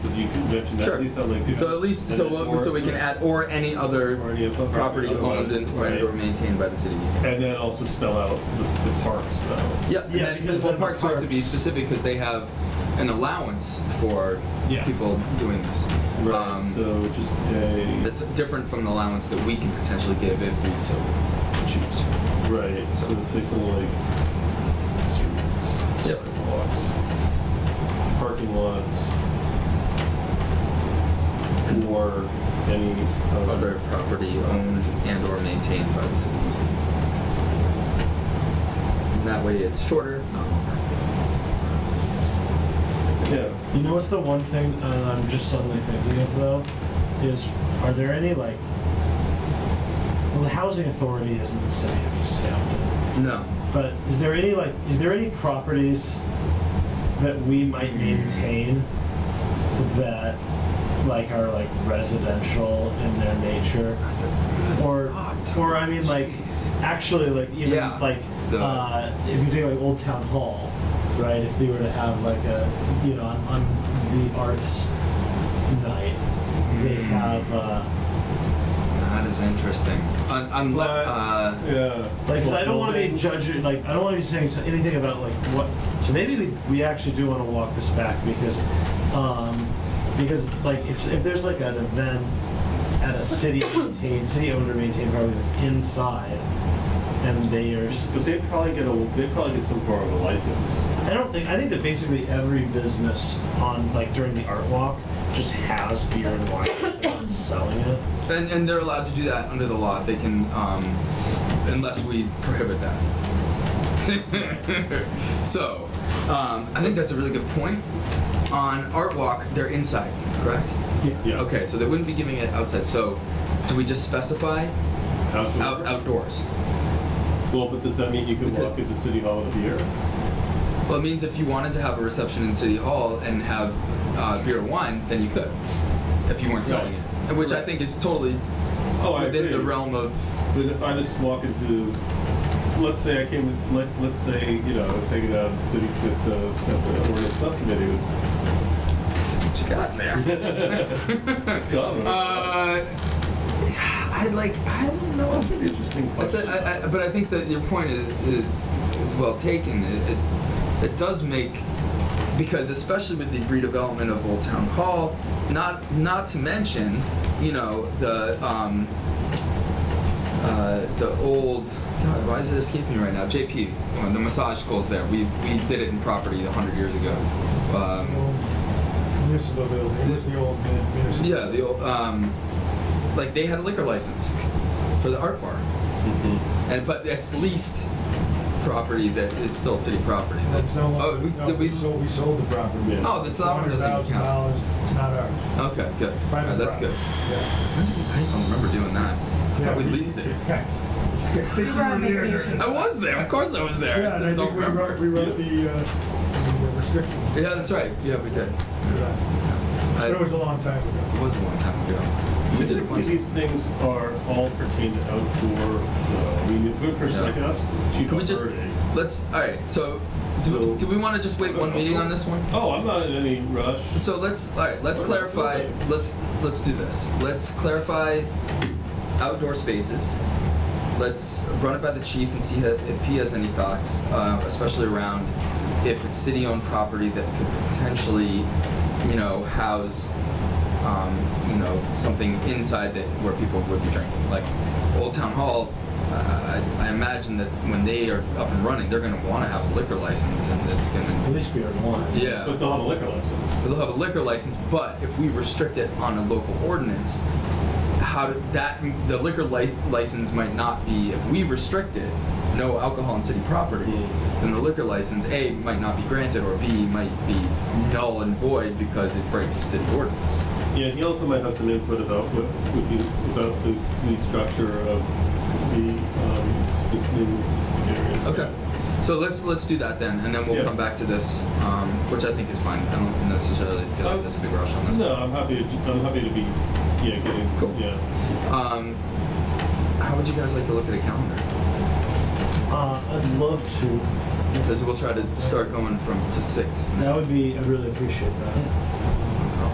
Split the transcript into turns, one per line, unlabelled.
you can mention that,
Sure.
at least on LinkedIn.
So at least,
And
so,
then
we'll-
or-
so we can add, or any other
Or any other property
property owned
otherwise,
and,
right.
or maintained by the city of East Hampton.
And then also spell out the, the parks though.
Yeah, and
Yeah,
then,
because
well,
then
parks have to be
parks-
specific because they have an allowance for
Yeah.
people doing this.
Right,
Um,
so just a,
That's different from the allowance that we can potentially give if we so choose.
right, so say something like streets,
Yep.
sidewalks, parking lots, or any
Other
other.
property owned and or maintained by the city of East Hampton. And That way it's shorter, not longer.
Yeah.
You know what's the one thing uh, I'm just suddenly thinking of though? Is are there any like. Well, the housing authority is in the city of East Hampton.
No.
But is there any like. Is there any properties that we might maintain that like are like residential in their nature?
That's a good
Or,
thought.
or I mean, like,
Jeez.
actually, like even
Yeah,
like
the-
uh, if you take like Old Town Hall, right? If they were to have like a you know on, on the arts night, they
Mm.
have uh,
That is interesting. Un- unle-
But-
uh,
Yeah.
like 'cause I don't want to be
Buildings.
judging like I don't want to be saying so- anything about like what. So maybe we, we actually do want to walk this back because um, because like if if there's like an event at a city maintained city owned or maintained property that's inside. And they are s-
But they probably get a, they probably get some form of a license.
I don't think I think that basically every business on like during the art walk just has beer and wine and not selling it.
uh, And, and they're allowed to do that under the law. They can, um, unless we prohibit that. so, um, I think that's a really good point. On Art Walk, they're inside, correct?
Yeah.
Okay, so they wouldn't be giving it outside. So, do we just specify
Outdoor.
out, outdoors?
Well, but does that mean you can
We could-
walk into City Hall with a beer?
Well, it means if you wanted to have a reception in City Hall and have uh, beer and wine, then you could, if you weren't selling
Right.
it. Which I
Right.
think is totally
Oh, I
within the
agree.
realm of
Then if I just walk into, let's say I came, with- let, let's say, you know, I was hanging out at City, with the, at the ordinance subcommittee with
what you got there.
It's gone.
Uh, I like. I don't know.
Oh, That's
if
an
it-
interesting
It's
question.
a, I, I, but I think that your point is is is well taken. It, it it does make because especially with the redevelopment of Old Town Hall, not not to mention, you know the um, uh, the old. God, why is it escaping me right now? JP, one, the massage school's there. We we did it in property hundred years ago. Um,
Municipal building, it was the old uh, municipal.
yeah, the old, um, like they had a liquor license for the art bar,
Mhm.
and but that's leased property that is still city property.
That's no
Oh,
longer,
we,
no,
did
we
we,
sold, we sold the property.
Yeah.
oh, the software doesn't even
Hundred thousand
count.
dollars, it's not ours.
Okay, good. All
Private
right, that's good.
property. Yeah.
When did we- I don't remember doing that. I
Yeah,
thought we leased it.
Yeah. I think
You were on
there.
vacation.
I was there. Of course, I was there.
Yeah,
I just
and I think
don't
we
remember.
wrote, we wrote the, uh, the restrictions.
Yeah, that's right. Yeah, we did.
Yeah.
I,
But it was a long time ago.
it was a long time ago. We did it
Typically,
once.
These things are all pertain to outdoor, uh, I mean, a good person
Yeah.
like us, Chief
Can we just
Alberti.
let's? All right. So, do,
So-
do we want to just wait one meeting on this one?
Oh, I'm not in any rush.
So let's all right. Let's
Or-
clarify.
or-
Let's let's do this. Let's clarify outdoor spaces. Let's run it by the chief and see ha- if he has any thoughts, uh, especially around if it's city-owned property that could potentially, you know, house, um, you know, something inside that where people would be drinking, like Old Town Hall. Uh, I, I imagine that when they are up and running, they're going to want to have a liquor license, and it's going to
At least beer and wine.
yeah.
But they'll have a liquor license.
They'll have a liquor license, but if we restrict it on a local ordinance, how do, that the liquor li- license might not be if we restrict it, no alcohol on city property,
Mm.
then the liquor license A might not be granted or B might be null and void because it breaks city ordinance.
Yeah, he also might have some input about what would be about the, the structure of the um, specific, specific areas.
Okay, so let's let's do that then, and then we'll
Yeah.
come back to this, um, which I think is fine. I don't necessarily feel like there's a big rush on this.
No, I'm happy. To, I'm happy to be. Yeah, getting.
Cool.
Yeah.
Um, how would you guys like to look at a calendar?
Uh, I'd love to.
Because we'll try to start going from to six.
That would be. I really appreciate that.